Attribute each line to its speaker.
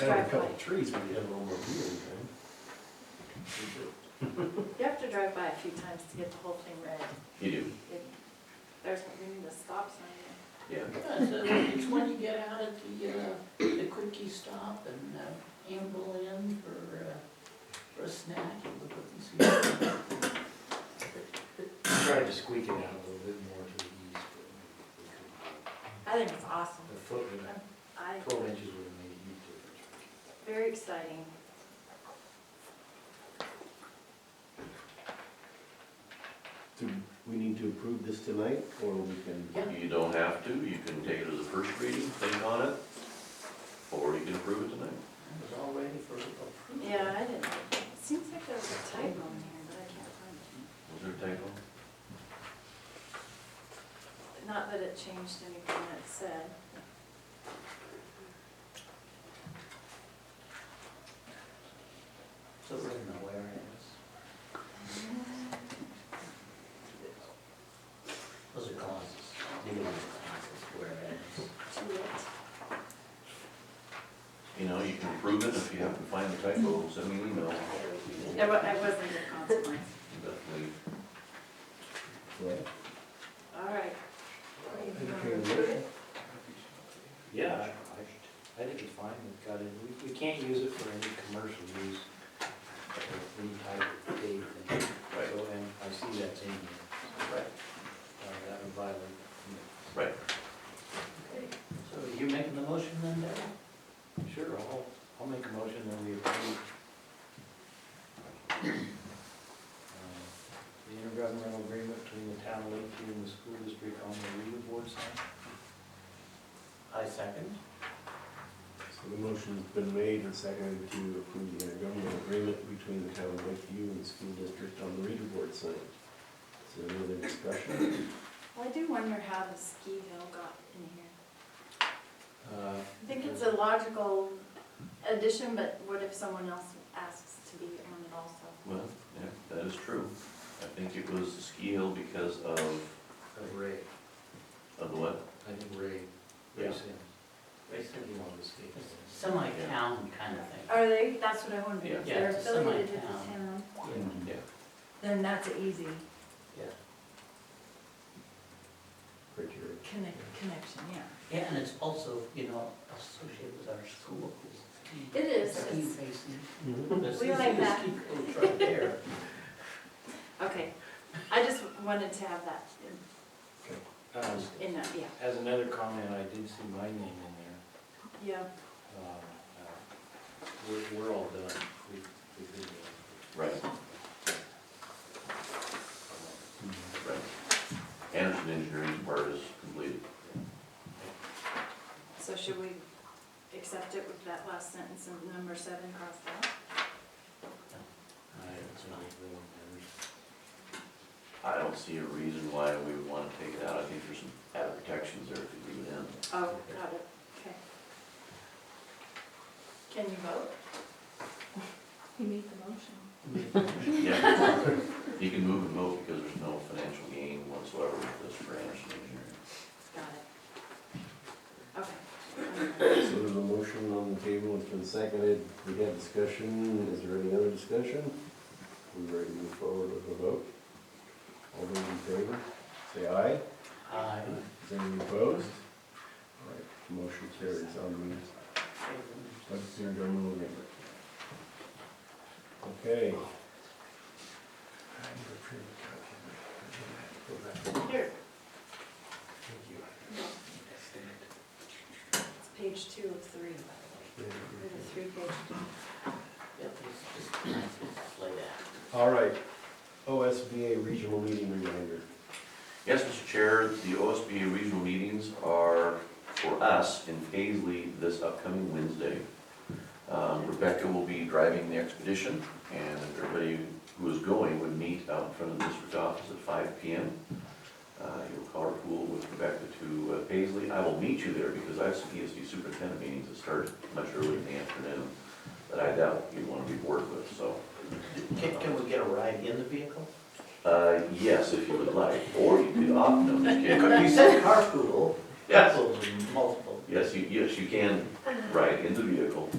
Speaker 1: Had a couple
Speaker 2: Right.
Speaker 1: trees, but you had a little more view in
Speaker 2: You have to drive by a few times to get the whole thing read.
Speaker 3: You do,
Speaker 2: If There's, we need a stop sign there.
Speaker 3: yeah.
Speaker 4: Yeah, so it's when you get out at the, uh, the quickie stop and uh, amble in for, uh, for a snack and look up and see. what's going on.
Speaker 5: Tried to squeak it out a little bit more to the east, but
Speaker 2: I think it's awesome.
Speaker 5: the foot, would have-
Speaker 2: I,
Speaker 5: twelve inches would have made a huge difference.
Speaker 2: very exciting.
Speaker 1: Do we need to approve this tonight, or we can?
Speaker 4: Yeah.
Speaker 3: You don't have to, you can take it as a first reading, think on it, or you can approve it tonight.
Speaker 4: I was all ready for approval.
Speaker 2: Yeah, I didn't, it seems like there was a typo in here, but I can't find it.
Speaker 3: Was there a typo?
Speaker 2: Not that it changed anything that it said.
Speaker 4: So we're in the whereas. Those are clauses, dealing with clauses, whereas.
Speaker 2: Too late.
Speaker 3: You know, you can approve it, if you happen to find the typo, send me an email.
Speaker 2: It wa, it wasn't a consequence.
Speaker 3: Definitely.
Speaker 2: All right.
Speaker 1: Entertain a motion?
Speaker 5: Yeah, I, I- I think it's fine, we've got it, we, we can't use it for any commercial use, or any type of day thing.
Speaker 3: Right.
Speaker 5: So, and I see that's in here.
Speaker 3: Right.
Speaker 5: Uh, that would violate.
Speaker 3: Right,
Speaker 4: Okay, So you making the motion then, Dale?
Speaker 5: Sure, I'll, I'll make a motion that we approve. uh, The intergovernmental agreement between the town of Lakeview and the school district on the real board sign.
Speaker 4: I second.
Speaker 1: So the motion's been made and seconded to approve the intergovernmental agreement between the town of Lakeview and the school district on the reader board sign. Is there any other discussion?
Speaker 2: Well, I do wonder how the ski hill got in here.
Speaker 5: Uh,
Speaker 2: I think it's a logical addition, but what if someone else asks to be on it also?
Speaker 3: well, yeah, that is true. I think it was the ski hill because of,
Speaker 5: Of Ray,
Speaker 3: of the what?
Speaker 5: I think Ray,
Speaker 3: Yeah.
Speaker 5: Ray Sims.
Speaker 4: Basically,
Speaker 5: He wanted to stay.
Speaker 4: Semi-town kind of thing.
Speaker 2: Are they, that's what I wondered,
Speaker 3: Yeah.
Speaker 2: if
Speaker 4: Yeah,
Speaker 2: they're
Speaker 4: it's
Speaker 2: affiliated with the
Speaker 4: semi-town.
Speaker 2: town,
Speaker 3: Yeah,
Speaker 2: then that's an easy
Speaker 1: Criteria.
Speaker 2: connect, connection, yeah.
Speaker 4: Yeah, and it's also, you know, associated with our schools.
Speaker 2: It is.
Speaker 4: Ski facing.
Speaker 1: Mm-hmm.
Speaker 2: We like that.
Speaker 4: Ski coach right there.
Speaker 2: Okay, I just wanted to have that in-
Speaker 5: Um,
Speaker 2: in, that, yeah,
Speaker 5: As another comment, I did see my name in there.
Speaker 2: yeah,
Speaker 5: Um, uh, We're, we're all done. We- we did it.
Speaker 3: right, right. Anderson Engineering's part is completed.
Speaker 2: so should we accept it with that last sentence in number seven crossed out?
Speaker 5: I haven't seen it, really, never.
Speaker 3: I don't see a reason why we would want to take it out. I think there's some added protections there to leave in.
Speaker 2: Oh, got it, okay. Can you vote? He made the motion.
Speaker 3: Yeah, You can move and vote because there's no financial gain whatsoever with this for Anderson Engineering.
Speaker 2: Got it. Okay.
Speaker 1: So there's a motion on the table, it's been seconded, we had discussion, is there any other discussion? We ready to move forward with a vote? All those in favor, say aye.
Speaker 4: I
Speaker 1: Is there any opposed? All right, motion carries on the budgetary governmental agreement. Okay.
Speaker 2: Here,
Speaker 1: Thank you.
Speaker 2: it's page two of three, by the way, or the three-page.
Speaker 4: Yep, it's just nice, it's like that.
Speaker 1: All right, OSBA regional meeting reminder.
Speaker 3: Yes, Mr. Chair, the OSBA regional meetings are for us in Paisley this upcoming Wednesday. Um, Rebecca will be driving the expedition, and everybody who is going would meet out in front of the district office at five P M. Uh, You'll carpool with Rebecca to uh, Paisley. I will meet you there because I have some ESD superintendent meetings that start much early in the afternoon that I doubt you'd want to be bored with, so.
Speaker 4: Can, can we get a ride in the vehicle?
Speaker 3: Uh, yes, if you would like, or you could opt, no, just kidding.
Speaker 4: You said carpool.
Speaker 3: Yes.
Speaker 4: Carpool's multiple.
Speaker 3: Yes, you, yes, you can ride in the vehicle.